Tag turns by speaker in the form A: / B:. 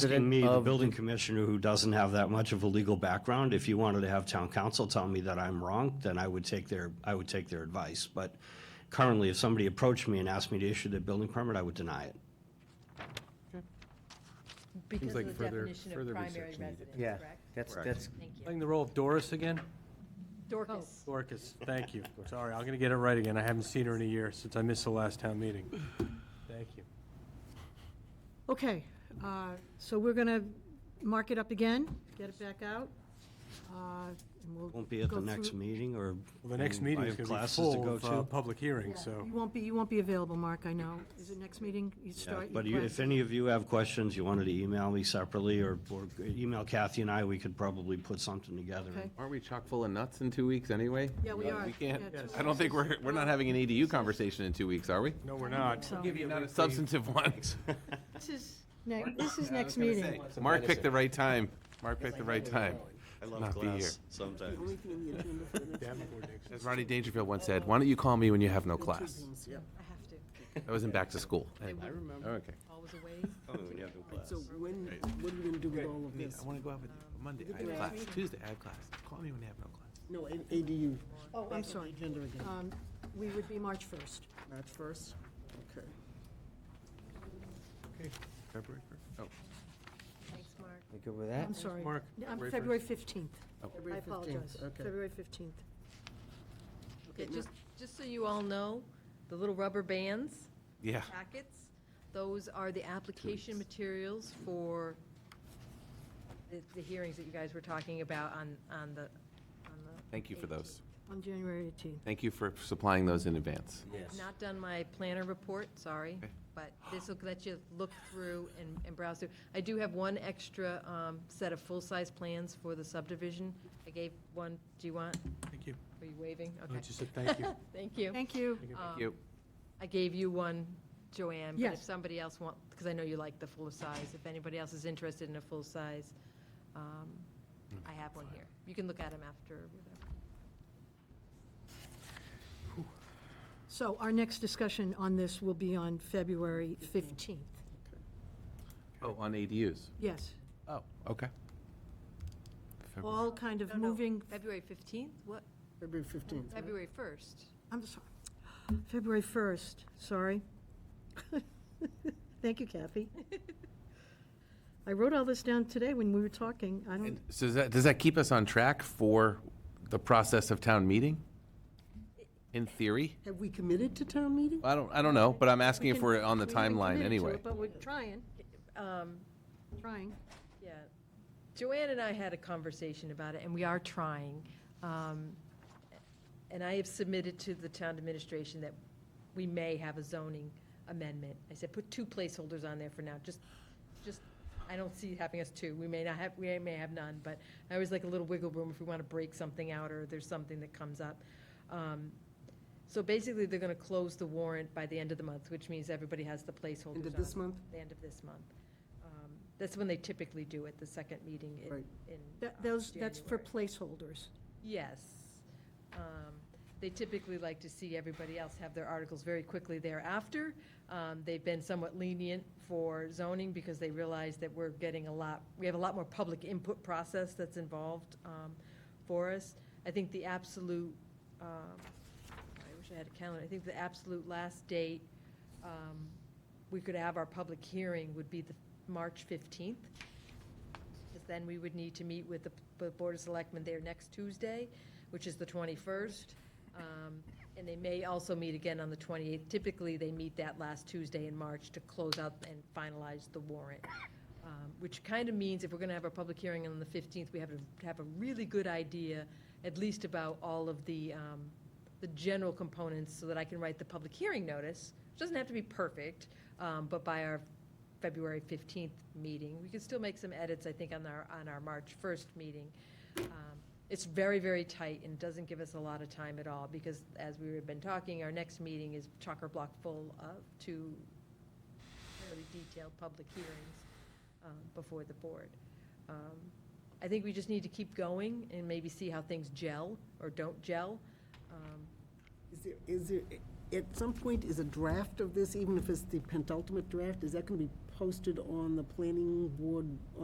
A: President me, the
B: of
A: building commissioner who doesn't have that much of a legal background, if you wanted to have town council tell me that I'm wrong, then I would take their, I would take their advice. But currently, if somebody approached me and asked me to issue their building permit, I would deny it.
C: Because
D: like
C: of the
D: further-
C: definition of
D: further
C: primary
D: research needed.
C: residence,
B: Yeah,
C: correct?
B: that's,
A: Correct.
B: that's,
C: Thank you.
D: Playing the role of Doris again?
C: Dorcas.
D: Dorcas, thank you. Sorry, I'm going to get it right again. I haven't seen her in a year since I missed the last town meeting. Thank you.
E: Okay, uh, so we're going to mark it up again, get it back out. uh, and we'll
A: Won't be at
E: go
A: the next
E: through-
A: meeting or.
D: Well, the next
A: and
D: meeting
A: I
D: is
A: have
D: going to be
A: classes to
D: full
A: go
D: of
A: to.
D: uh, public hearings, so.
E: You won't be, you won't be available, Mark, I know. Is it next meeting? You
A: Yeah,
E: start. your
A: But you-
E: class.
A: if any of you have questions, you wanted to email me separately or, or email Kathy and I, we could probably put something together.
E: Okay.
F: Aren't we chock full of nuts in two weeks anyway?
E: Yeah, we are.
F: We can't,
E: Yeah, two
F: I don't think we're, we're not having an ADU conversation in two weeks, are we?
D: No, we're not.
E: So
F: Not a substantive one.
E: this is, ne- this is next meeting.
F: Mark picked the right time. Mark picked the right time.
A: I
F: love Not be class here.
A: sometimes.
F: As Rodney Dangerfield once said, why don't you call me when you have no class?
C: I have to.
F: That was in back to school.
A: I remember.
F: Okay.
C: Always away.
A: when you have no class.
G: So when, what are we gonna do with all of this?
F: want to go out with you Monday. I have class. Tuesday, I have class. Call me when you have no class.
G: No, A- ADU.
E: Oh, I'm
G: Back on the
E: sorry.
G: Agenda again.
E: Um, We would be March 1st.
G: That's first? Okay.
F: February first?
C: Thanks, Mark.
B: we good with that?
E: I'm sorry.
D: Mark,
E: No, I'm
D: February
E: February 15th. I
G: February 15th,
E: apologize.
G: Okay.
E: February 15th.
C: Okay, just, just so you all know, the little rubber bands,
F: Yeah.
C: packets, those are the application materials for the, the hearings that you guys were talking about on, on the, on the.
F: Thank you for those.
E: On January 18th.
F: Thank you for supplying those in advance.
C: I've Not done my planner report, sorry,
F: Okay.
C: but this will let you look through and, and browse through. I do have one extra, um, set of full-size plans for the subdivision. I gave one, do you want,
D: thank you.
C: are you waving?
D: I
C: Okay,
D: just said thank you.
C: thank you. Um,
E: Thank you.
F: Thank you.
C: I gave you one, Joanne, but if
E: Yes.
C: somebody else want, because I know you like the full size, if anybody else is interested in a full size, um,
F: Mm.
C: I have one here. You can look at them after, whatever.
E: So our next discussion on this will be on February 15th.
F: Oh, on ADUs.
E: Yes,
F: Oh, okay. February.
E: all kind of
C: No, no,
E: moving,
C: February 15th? What?
G: February 15th. right?
C: February 1st?
E: I'm sorry, February 1st, sorry. Thank you, Kathy. I wrote all this down today when we were talking. I don't,
F: And So does that, does that keep us on track for the process of town meeting? In theory?
G: Have we committed to town meeting?
F: I don't, I don't know, but I'm asking
E: We
F: if
E: can-
F: we're on the
E: we haven't committed
F: timeline
E: to
F: anyway.
E: it, But we're trying,
C: Um,
E: trying.
C: Yeah. Joanne and I had a conversation about it, and we are trying. Um, And I have submitted to the town administration that we may have a zoning amendment. I said, put two placeholders on there for now, just, just, I don't see having us two. We may not have, we may have none, but I always like a little wiggle room if we want to break something out or there's something that comes up. Um, So basically, they're going to close the warrant by the end of the month, which means everybody has the placeholders
G: End of
C: on
G: this month?
C: the end of this month. Um, That's when they typically do it, the second meeting in,
G: Right.
C: in.
E: That-
C: um,
E: Those, that's for
C: January.
E: placeholders.
C: Yes. Um, They typically like to see everybody else have their articles very quickly thereafter. Um, They've been somewhat lenient for zoning because they realize that we're getting a lot, we have a lot more public input process that's involved um, for us. I think the absolute, um, I wish I had a calendar, I think the absolute last date um, we could have our public hearing would be the March 15th. Because then we would need to meet with the the Board of Selectmen there next Tuesday, which is the 21st. Um, And they may also meet again on the 28th. Typically, they meet that last Tuesday in March to close out and finalize the warrant. Um, Which kind of means if we're going to have our public hearing on the 15th, we have to have a really good idea, at least about all of the, um, the general components, so that I can write the public hearing notice. It doesn't have to be perfect, um, but by our February 15th meeting. We could still make some edits, I think, on our, on our March 1st meeting. Um, It's very, very tight and doesn't give us a lot of time at all, because as we've been talking, our next meeting is chock-a-block full of two fairly detailed public hearings um, before the board. Um, I think we just need to keep going and maybe see how things gel or don't gel. Um,
G: Is there, is there, at some point, is a draft of this, even if it's the penultimate draft, is that gonna be posted on the planning board